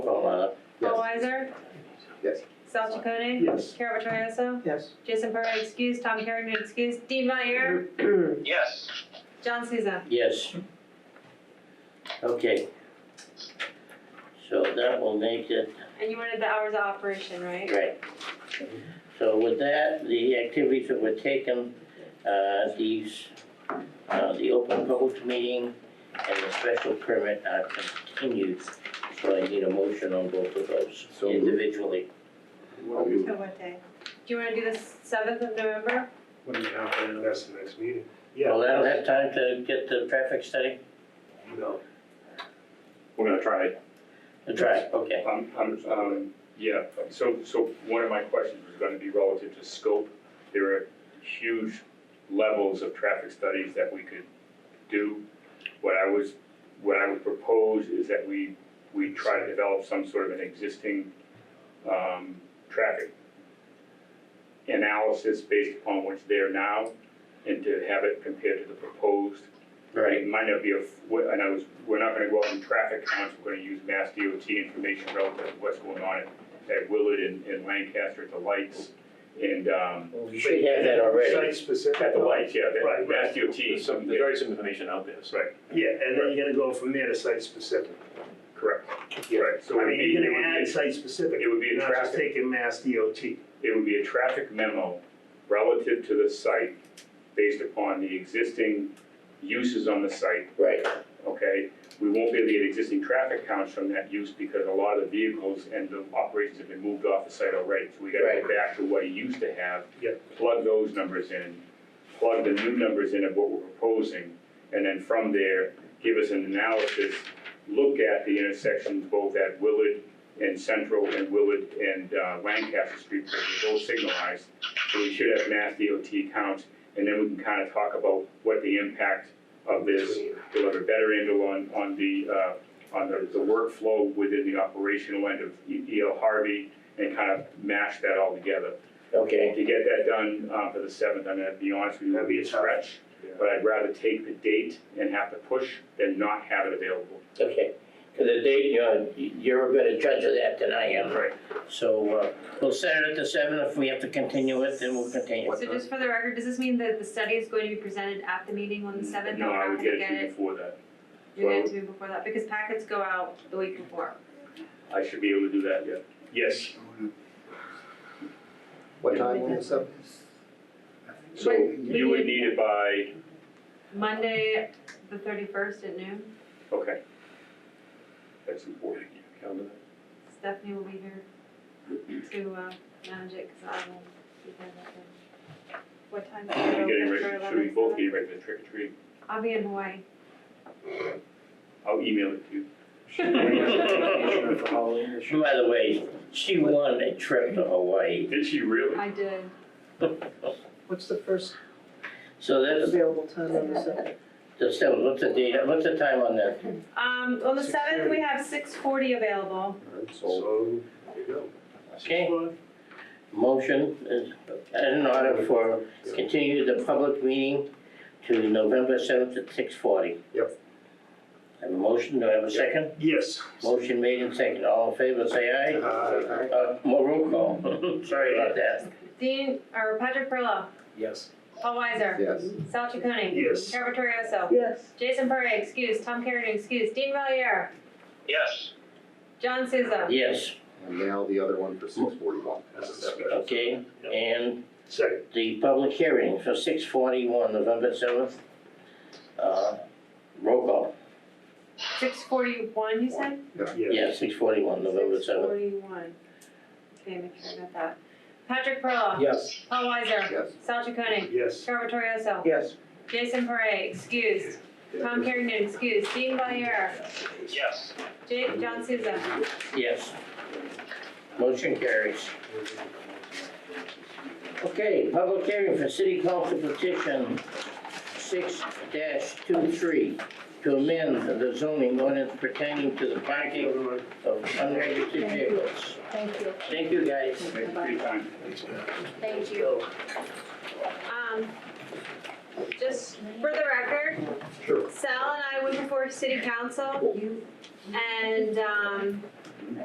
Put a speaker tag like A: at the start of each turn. A: uh,
B: Bizzard,
C: Yes.
B: Sal Chaconi,
C: Yes.
B: Carol Vittorioso,
C: Yes.
B: Jason Parra excused, Tom Carrigan excused, Dean Valier,
D: Yes. Mm-hmm.
B: John Souza.
A: Yes. Okay. So that will make it,
B: And you wanted the hours of operation, right?
A: right. So with that, the activities that were taken, uh, these, uh, the open public meeting and the special permit are continued. So I need a motion on both of those
C: So moved.
A: individually.
C: What do
B: So Oh, what day? Do you wanna do the seventh of November?
E: What do you have for now?
F: That's the next meeting.
E: Yeah.
A: Well, that'll have time to get the traffic study,
F: No.
D: We're gonna try it.
A: the track, okay.
D: Um, um, um, yeah, so, so one of my questions was gonna be relative to scope. There are huge levels of traffic studies that we could do. What I was, what I would propose is that we, we try to develop some sort of an existing, um, traffic analysis based upon what's there now and to have it compared to the proposed
A: Right,
D: It might not be a, and I was, we're not gonna go out and traffic counts, we're gonna use mass DOT information relative to what's going on at, at Willard and, and Lancaster at the lights. And, um,
A: you should have that already.
F: Site specific.
D: at the lights, yeah, that-
F: Right, right.
D: mass DOT.
F: There's some, there's already some information out there, so.
D: Right,
E: Yeah, and then you're gonna go from there to
F: Site
E: site.
F: specific.
D: correct,
E: Yeah.
D: right, so
E: I
D: it would
E: mean,
D: be,
E: you're
D: it
E: gonna add
D: would
E: site specific.
D: be, it would be a
E: You're not just
D: traffic,
E: taking mass DOT.
D: it would be a traffic memo relative to the site based upon the existing uses on the site
A: Right,
D: okay? We won't be able to get existing traffic counts from that use because a lot of the vehicles and the operations have been moved off the site already. So we gotta go back to what it used to have.
E: Yep.
D: Plug those numbers in, plug the new numbers in of what we're proposing, and then from there, give us an analysis. Look at the intersections both at Willard and Central and Willard and uh, Lancaster Street, because they're both signalized. So we should have mass DOT counts, and then we can kind of talk about what the impact of this we'll have a better handle on, on the, uh, on the, the workflow within the operational end of E- EL Harvey and kind of mash that all together.
A: okay.
D: To get that done, uh, for the seventh, I'm gonna be honest with you, it'll
E: That'd be
D: be a
E: a tough-
D: stretch.
E: yeah.
D: But I'd rather take the date and have to push than not have it available.
A: Okay, because the date, you're, you're a better judge of that than I am.
D: Right.
A: So, uh, we'll set it at the seven, if we have to continue it, then we'll continue.
B: So just for the record, does this mean that the study is going to be presented at the meeting on the seventh?
D: Mm, No, I would get it to you before that.
B: You're going to be before that, because packets go out the week before.
D: I should be able to do that, yeah. Yes,
C: What time on the seventh?
D: so
B: Right,
D: you would need it by,
B: Monday, the thirty-first at noon,
D: okay. That's important.
B: Stephanie will be here to, uh, manage it, cause I will be there that day. What time? is
D: Should
B: it
D: we
B: open
D: get ready,
B: for
D: should we
B: 11?
D: both get ready for the trick or treat?
B: I'll be in Hawaii.
D: I'll email it to you.
A: By the way, she won a trip to Hawaii.
D: Did she really?
B: I did.
G: What's the first
A: So that's,
G: available time on the seventh?
A: the seven, what's the date, what's the time on that?
B: Um, on the seventh, we have six forty available.
C: So, there you go.
A: Okay. Motion is in order for continue the public meeting to November seventh at six forty.
C: Yep.
A: Have a motion, do I have a second?
E: Yes.
A: Motion made and second, all in favor, say aye.
C: Aye.
A: Uh, more roll call, sorry about that.
B: Dean, or Patrick Perla,
E: Yes.
B: Paul Weiser,
C: Yes.
B: Sal Chaconi.
E: Yes.
B: Carol Vittorioso,
G: Yes.
B: Jason Parra, excuse, Tom Carrigan, excuse, Dean Valier,
D: Yes.
B: John Souza.
A: Yes,
C: And now the other one for six forty-one.
A: okay, and
E: Second.
A: the public hearing for six forty-one, November seventh. Uh, roll call,
B: Six forty-one, you said?
A: yeah, six forty-one, November
B: Six
A: seventh,
B: forty-one. Okay, make sure I got that. Patrick Perla.
E: Yes.
B: Paul Weiser,
C: Yes.
B: Sal Chaconi,
E: Yes.
B: Carol Vittorioso,
G: Yes.
B: Jason Parra, excused, Tom Carrigan, excused, Dean Valier,
D: Yes.
B: Jake, John Souza.
A: yes. Motion carries. Okay, public hearing for city council petition six dash two-three to amend the zoning ordinance pertaining to the parking of unregistered vehicles.
G: Thank you.
A: Thank you, guys.
D: Thank you for your time.
B: Thank you. Um, just for the record,
C: Sure.
B: Sal and I went before city council and, um,